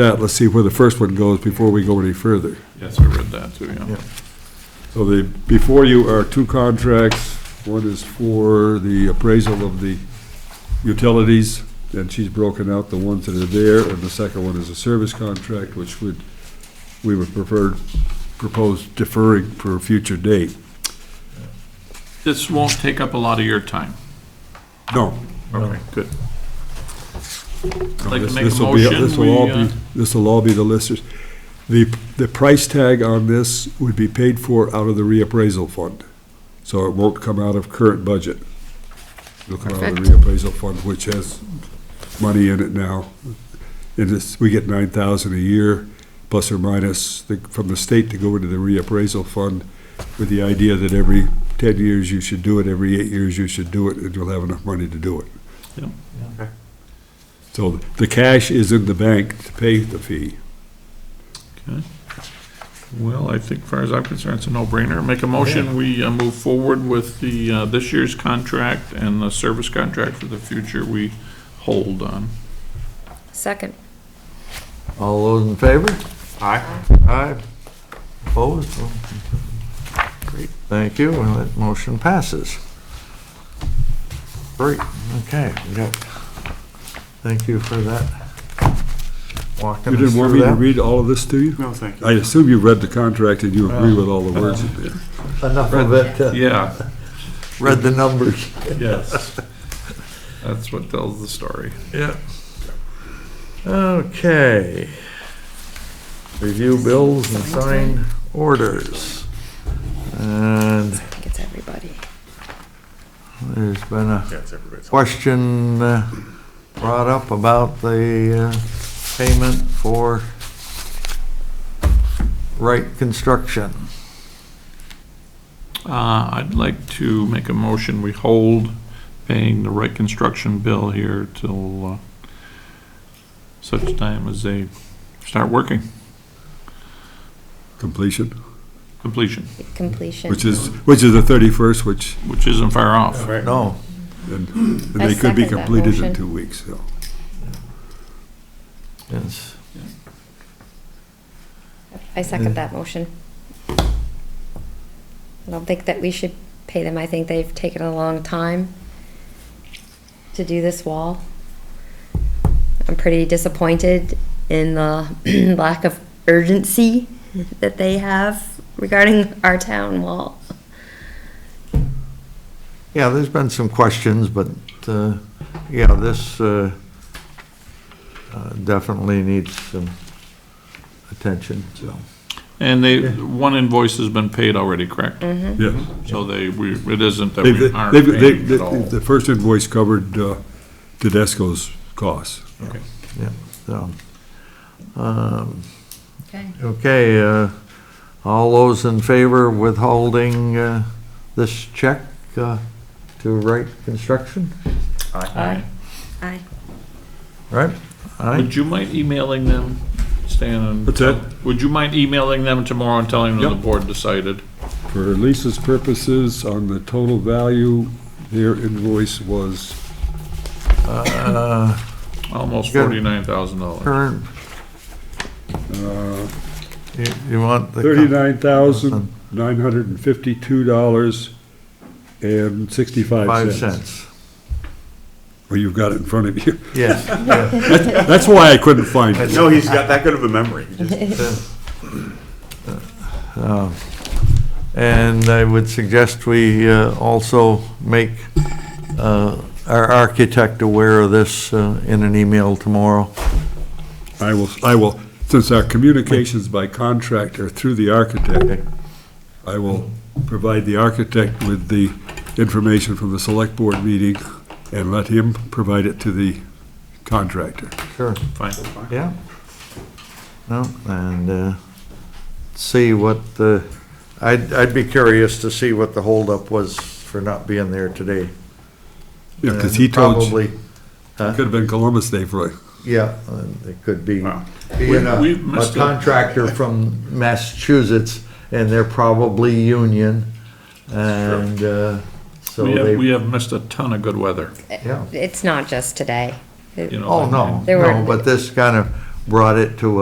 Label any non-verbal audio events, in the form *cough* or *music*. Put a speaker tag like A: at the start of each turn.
A: that, let's see where the first one goes before we go any further.
B: Yes, I read that too, yeah.
A: So the, before you are two contracts. One is for the appraisal of the utilities, and she's broken out the ones that are there, and the second one is a service contract, which would, we would prefer, propose deferring for a future date.
B: This won't take up a lot of your time.
A: No.
B: Okay, good.
A: no,
B: Like to
A: this-
B: make a
A: this will be-
B: motion,
A: This will all
B: we,
A: be,
B: uh,
A: this will all be the listers. The, the price tag on this would be paid for out of the reappraisal fund, so it won't come out of current budget. It'll come out of the reappraisal fund, which has money in it now. And this, we get nine thousand a year, plus or minus, the- from the state to go into the reappraisal fund with the idea that every ten years you should do it, every eight years you should do it, and you'll have enough money to do it.
B: Yep.
A: So the cash is in the bank to pay the fee.
B: Well, I think, far as I'm concerned, it's a no-brainer. Make a motion, we uh, move forward with the, uh, this year's contract and the service contract for the future we
A: *laughs*
B: hold on.
C: Second.
D: All those in favor?
E: Aye.
D: Aye. Opposed? Great. Thank you, and that motion passes. Great, okay, we got, thank you for that.
A: You
D: Walking us
A: didn't want me
D: through
A: to
D: that.
A: read all of this to you?
E: No, thank you. uh-huh.
A: I assume you read the contract and you agree with all the words in there.
D: Enough of it, uh,
B: Yeah,
D: read the numbers.
B: yes. That's what tells the story.
D: Yeah. Okay. Review bills and sign orders. And
C: I think it's everybody.
D: There's been a
E: That's everybody's.
D: question uh, brought up about the uh, payment for Wright Construction.
B: Uh, I'd like to make a motion, we hold paying the right construction bill here till uh, such time as they start working,
A: Completion,
B: completion,
C: Completion.
A: which is, which is the thirty-first, which,
B: which isn't far off.
D: No,
A: and and
C: I
A: they could be
C: second that
A: completed in
C: motion.
A: two weeks, so.
D: it's,
C: I second that motion. I don't think that we should pay them. I think they've taken a long time to do this wall. I'm pretty disappointed in the *clears throat* lack of urgency that they have regarding our town wall.
D: yeah, there's been some questions, but, uh, yeah, this uh, uh, definitely needs some attention, so.
B: And they, one invoice has been paid already, correct?
C: Hmm?
A: Yeah.
B: So they, we, it isn't that
A: They've,
B: we
A: they've,
B: aren't paying
A: they-
B: at all.
A: the first invoice covered uh, Tedesco's costs.
B: Okay.
D: Yeah, so. um,
C: Okay.
D: Okay, uh, all those in favor of withholding uh, this check uh, to Wright Construction,
C: Aye. Aye.
D: right? Aye.
B: Would you mind emailing them, Stan? and-
A: What's that?
B: Would you mind emailing them tomorrow and telling them the
A: Yep.
B: board decided?
A: For Lisa's purposes, on the total value, their invoice was
D: Uh,
B: Almost
D: Good.
B: forty-nine thousand dollars.
D: Current, you- you want the...
A: Uh, thirty-nine thousand, nine hundred and fifty-two dollars and
D: Five
A: sixty-five cents.
D: cents.
A: Well, you've got it in front of you.
D: Yes.
A: That's why I couldn't find *laughs* it.
E: No, he's got that good of a memory. He just-
D: Um, And I would suggest we uh, also make uh, our architect aware of this uh, in an email tomorrow.
A: I will, I will, since our communications by contract are through the architect, I will provide the architect with the information from the select board meeting and let him provide it to the contractor.
D: Sure.
B: Fine.
D: Yeah. No, and uh, see what the, I'd, I'd be curious to see what the holdup was for not being there today.
A: Yeah, because he told, you-
D: Probably,
A: could have been Columbus Day for it.
D: yeah, and it could be,
E: Wow.
D: being a
B: We've
D: a
B: missed it.
D: contractor from Massachusetts, and they're probably union, and uh, so
B: We have, we
D: they,
B: have missed a ton of good weather,
D: yeah.
C: It's not just today.
B: you know.
D: Oh, no,
C: There were-
D: no, but this kind of brought it to